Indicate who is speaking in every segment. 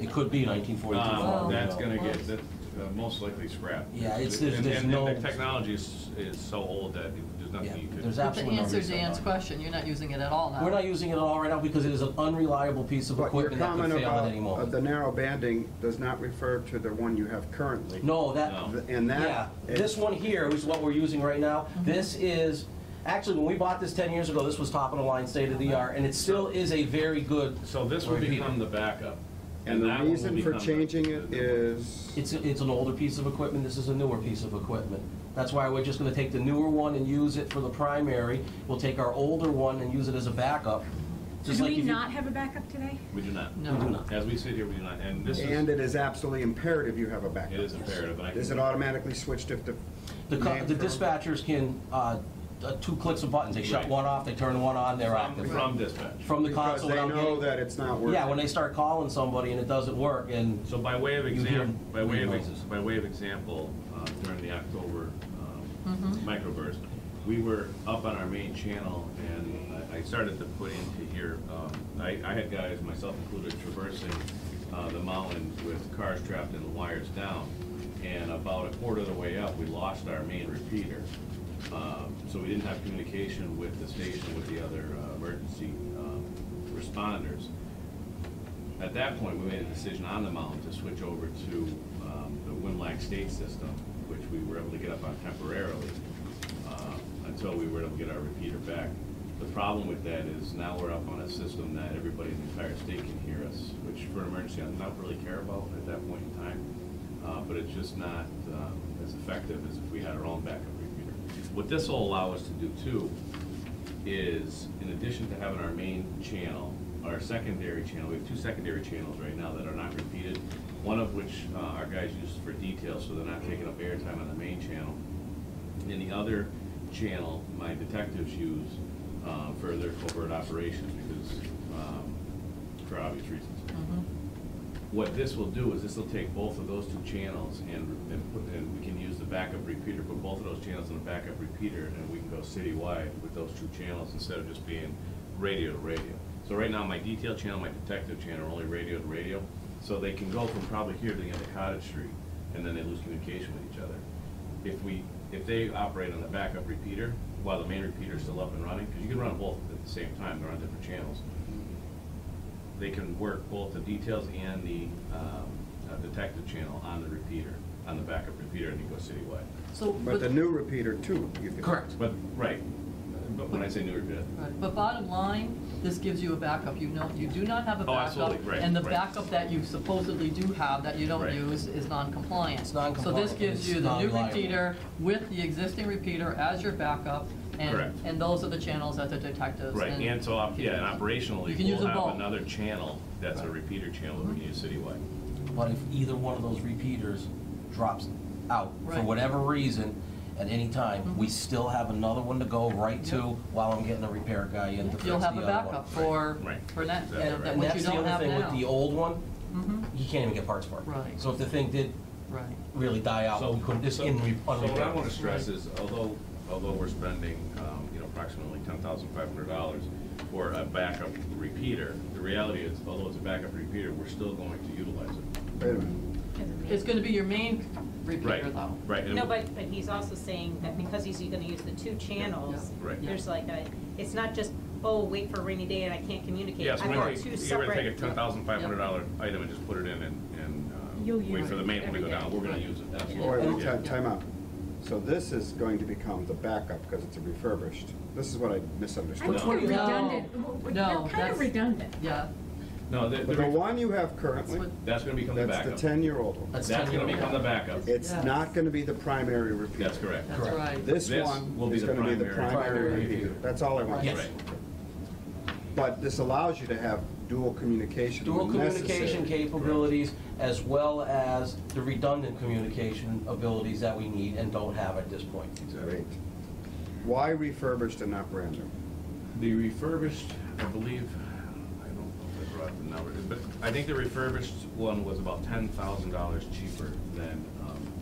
Speaker 1: It could be nineteen
Speaker 2: Um,
Speaker 1: forty-two.
Speaker 2: That's gonna get, that's uh, most likely scrapped.
Speaker 1: Yeah, it's- there's-
Speaker 2: And-
Speaker 1: there's
Speaker 2: and-
Speaker 1: no-
Speaker 2: And the technology is, is so old that there's
Speaker 1: Yeah,
Speaker 2: nothing you could.
Speaker 1: there's
Speaker 3: But to
Speaker 1: absolutely no
Speaker 3: answer
Speaker 1: reason
Speaker 3: Dan's
Speaker 1: not to.
Speaker 3: question, you're not using it at all now.
Speaker 1: We're not using it at all right now because it is an unreliable piece of
Speaker 4: But your
Speaker 1: equipment that could
Speaker 4: comment
Speaker 1: fail at
Speaker 4: about
Speaker 1: any
Speaker 4: uh, the
Speaker 1: moment.
Speaker 4: narrow banding does not refer to the one you have currently.
Speaker 1: No, that,
Speaker 2: No.
Speaker 4: Th- And
Speaker 1: Yeah,
Speaker 4: that.
Speaker 1: this one here is what we're using right now.
Speaker 5: Mm-hmm.
Speaker 1: This is, actually, when we bought this 10 years ago, this was top of the line, state of the art, and it still is a very good,
Speaker 2: So this will
Speaker 1: Repeat it.
Speaker 2: become the backup.
Speaker 4: And
Speaker 2: that
Speaker 4: the
Speaker 2: one will
Speaker 4: reason for
Speaker 2: become the-
Speaker 4: changing it
Speaker 2: the-
Speaker 4: is,
Speaker 1: it's, it's an older piece of equipment, this is a newer piece of equipment. That's why we're just gonna take the newer one and use it for the primary. We'll take our older one and use it as a backup. Just
Speaker 5: Do
Speaker 1: like
Speaker 5: we
Speaker 1: if you-
Speaker 5: not have a backup today?
Speaker 2: We do not.
Speaker 3: No. We do
Speaker 1: not.
Speaker 2: As we sit here, we do not, and this
Speaker 4: and
Speaker 2: is,
Speaker 4: it is absolutely imperative you have a backup.
Speaker 2: it is imperative, and I.
Speaker 4: Is it automatically switched if the?
Speaker 1: The co-
Speaker 4: man
Speaker 1: the
Speaker 4: from-
Speaker 1: dispatchers can, uh, uh, two clicks of buttons, they shut
Speaker 2: Right.
Speaker 1: one off, they turn one on, they're
Speaker 2: From
Speaker 1: active.
Speaker 2: from dispatch.
Speaker 1: From the
Speaker 4: Because
Speaker 1: console
Speaker 4: they
Speaker 1: without
Speaker 4: know
Speaker 1: getting-
Speaker 4: that it's not working.
Speaker 1: Yeah, when they start calling somebody and it doesn't work, and
Speaker 2: So by way of
Speaker 1: You hear
Speaker 2: example, by way of, ex-
Speaker 1: noises.
Speaker 2: by way of example, uh, during the October um, microburst, we were up on our main channel and I I started to put into here, um, I, I had guys, myself included, traversing uh, the mountains with cars trapped and the wires down. And about a quarter of the way up, we lost our main repeater. Um, So we didn't have communication with the station, with the other uh, emergency um, responders. At that point, we made a decision on the mountain to switch over to um, the Winlock State system, which we were able to get up on temporarily uh, until we were able to get our repeater back. The problem with that is now we're up on a system that everybody in the entire state can hear us, which for an emergency, I don't really care about at that point in time. Uh, But it's just not um, as effective as if we had our own backup repeater. What this will allow us to do too is, in addition to having our main channel, our secondary channel, we have two secondary channels right now that are not repeated, one of which uh, our guys use for details, so they're not taking up airtime on the main channel. And the other channel, my detectives use uh, for their covert operations, because, um, for obvious reasons. What this will do is this will take both of those two channels and, and put, and we can use the backup repeater, put both of those channels in a backup repeater, and we can go citywide with those two channels instead of just being radio to radio. So right now, my detail channel, my detective channel are only radio to radio, so they can go from probably here to the end of Cottage Street, and then they lose communication with each other. If we, if they operate on the backup repeater, while the main repeater's still up and running, because you can run both at the same time, they're on different channels, they can work both the details and the um, uh, detective channel on the repeater, on the backup repeater, and you go citywide.
Speaker 3: So,
Speaker 4: But
Speaker 3: but,
Speaker 4: the new repeater too. you can-
Speaker 1: Correct.
Speaker 2: But, right, but when I say new repeater,
Speaker 3: right, but bottom line, this gives you a backup. You know, you do not have a
Speaker 2: Oh,
Speaker 3: backup.
Speaker 2: absolutely, right,
Speaker 3: And the
Speaker 2: right.
Speaker 3: backup that you supposedly do have that you don't
Speaker 2: Right.
Speaker 3: use is non-compliant.
Speaker 1: It's non-compliant,
Speaker 3: So this gives
Speaker 1: it's
Speaker 3: you the new
Speaker 1: non-reliable.
Speaker 3: repeater with the existing repeater as your backup. and-
Speaker 2: Correct.
Speaker 3: And those are the channels that the detectives.
Speaker 2: right,
Speaker 3: and-
Speaker 2: and so, op- yeah, and operationally,
Speaker 3: You can use
Speaker 2: we'll
Speaker 3: them both.
Speaker 2: have another channel that's a repeater channel that we can use citywide.
Speaker 1: But if either one of those repeaters drops out for
Speaker 3: Right. Mm-hmm.
Speaker 1: whatever reason, at any time, we still have another one to go right to while I'm getting the repair guy in to fix the
Speaker 3: You'll
Speaker 1: other
Speaker 3: have a
Speaker 1: one.
Speaker 3: backup for,
Speaker 2: Right, right.
Speaker 3: for that,
Speaker 2: Exactly
Speaker 3: that
Speaker 2: right.
Speaker 3: that
Speaker 1: And
Speaker 3: which
Speaker 1: that's
Speaker 3: you
Speaker 1: the
Speaker 3: don't have
Speaker 1: other thing with the
Speaker 3: now.
Speaker 1: old one,
Speaker 3: Mhm.
Speaker 1: you can't even get parts for it.
Speaker 3: Right.
Speaker 1: So if the thing did
Speaker 3: Right.
Speaker 1: really die out,
Speaker 2: So,
Speaker 1: we couldn't, it's
Speaker 2: so-
Speaker 1: in, re-
Speaker 2: so what I
Speaker 1: unrepairable.
Speaker 2: want to stress is, although, although we're spending, um, you know, approximately ten thousand five hundred dollars for a backup repeater, the reality is, although it's a backup repeater, we're still going to utilize it.
Speaker 4: Wait a minute.
Speaker 3: It's gonna be your main
Speaker 2: Right,
Speaker 3: repeater though.
Speaker 2: right. and
Speaker 6: No,
Speaker 2: we-
Speaker 6: but, but he's also saying that because he's gonna use the two channels,
Speaker 2: Yeah, right.
Speaker 6: there's like a, it's not just, oh, wait for a rainy day and I can't communicate.
Speaker 2: Yes,
Speaker 6: I've
Speaker 2: we're
Speaker 6: got
Speaker 2: going
Speaker 6: two
Speaker 2: to, we're going to take a
Speaker 6: separate.
Speaker 2: ten thousand five hundred dollar item and just put it in and, and uh,
Speaker 5: You'll
Speaker 2: wait
Speaker 5: use
Speaker 2: for the
Speaker 5: it
Speaker 2: main one to go
Speaker 6: every
Speaker 2: down.
Speaker 6: day.
Speaker 2: We're going to use it,
Speaker 4: Oh, Wait,
Speaker 2: absolutely.
Speaker 4: wait,
Speaker 2: Yeah.
Speaker 4: ti- time out. So this is going to become the backup because it's a refurbished. This is what I
Speaker 5: I think
Speaker 4: misunderstood.
Speaker 1: No.
Speaker 5: they're
Speaker 3: No.
Speaker 5: redundant. W- w-
Speaker 3: No,
Speaker 5: They're kind
Speaker 3: that's-
Speaker 5: of redundant.
Speaker 3: Yeah,
Speaker 2: No, the-
Speaker 4: But
Speaker 2: the
Speaker 4: the
Speaker 2: re-
Speaker 4: one you have
Speaker 3: that's
Speaker 4: currently,
Speaker 3: what,
Speaker 2: that's going to become the
Speaker 4: that's the
Speaker 2: backup.
Speaker 4: ten-year-old one.
Speaker 1: That's
Speaker 2: That's going to
Speaker 1: 10
Speaker 2: become the backup.
Speaker 4: It's
Speaker 3: Yeah.
Speaker 4: not gonna be the primary repeater.
Speaker 2: That's correct.
Speaker 3: that's
Speaker 1: Correct.
Speaker 3: right.
Speaker 4: This
Speaker 2: This will
Speaker 4: one
Speaker 2: be
Speaker 4: is
Speaker 2: the
Speaker 4: gonna be the
Speaker 2: primary-
Speaker 4: primary
Speaker 1: Primary
Speaker 4: repeater.
Speaker 1: repeater.
Speaker 4: That's all I want. to
Speaker 1: Yes.
Speaker 4: say.
Speaker 2: Right.
Speaker 4: But this allows you to have dual communication
Speaker 1: Dual
Speaker 4: when
Speaker 1: communication
Speaker 4: necessary.
Speaker 1: capabilities as well as the redundant communication abilities that we need and don't have at this point.
Speaker 4: Great. Why refurbished and not brand new?
Speaker 2: The refurbished, I believe, I don't know if I brought the number, but I think the refurbished one was about ten thousand dollars cheaper than um,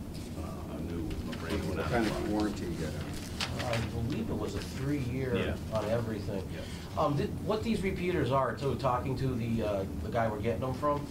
Speaker 2: uh, a new Marine one.
Speaker 4: What kind of warranty you get on it?
Speaker 1: Uh, I believe it was a three-year
Speaker 2: Yeah.
Speaker 1: on everything.
Speaker 2: Yeah.
Speaker 1: Um, thi- What these repeaters are, too, talking to the, uh, the guy we're getting them from,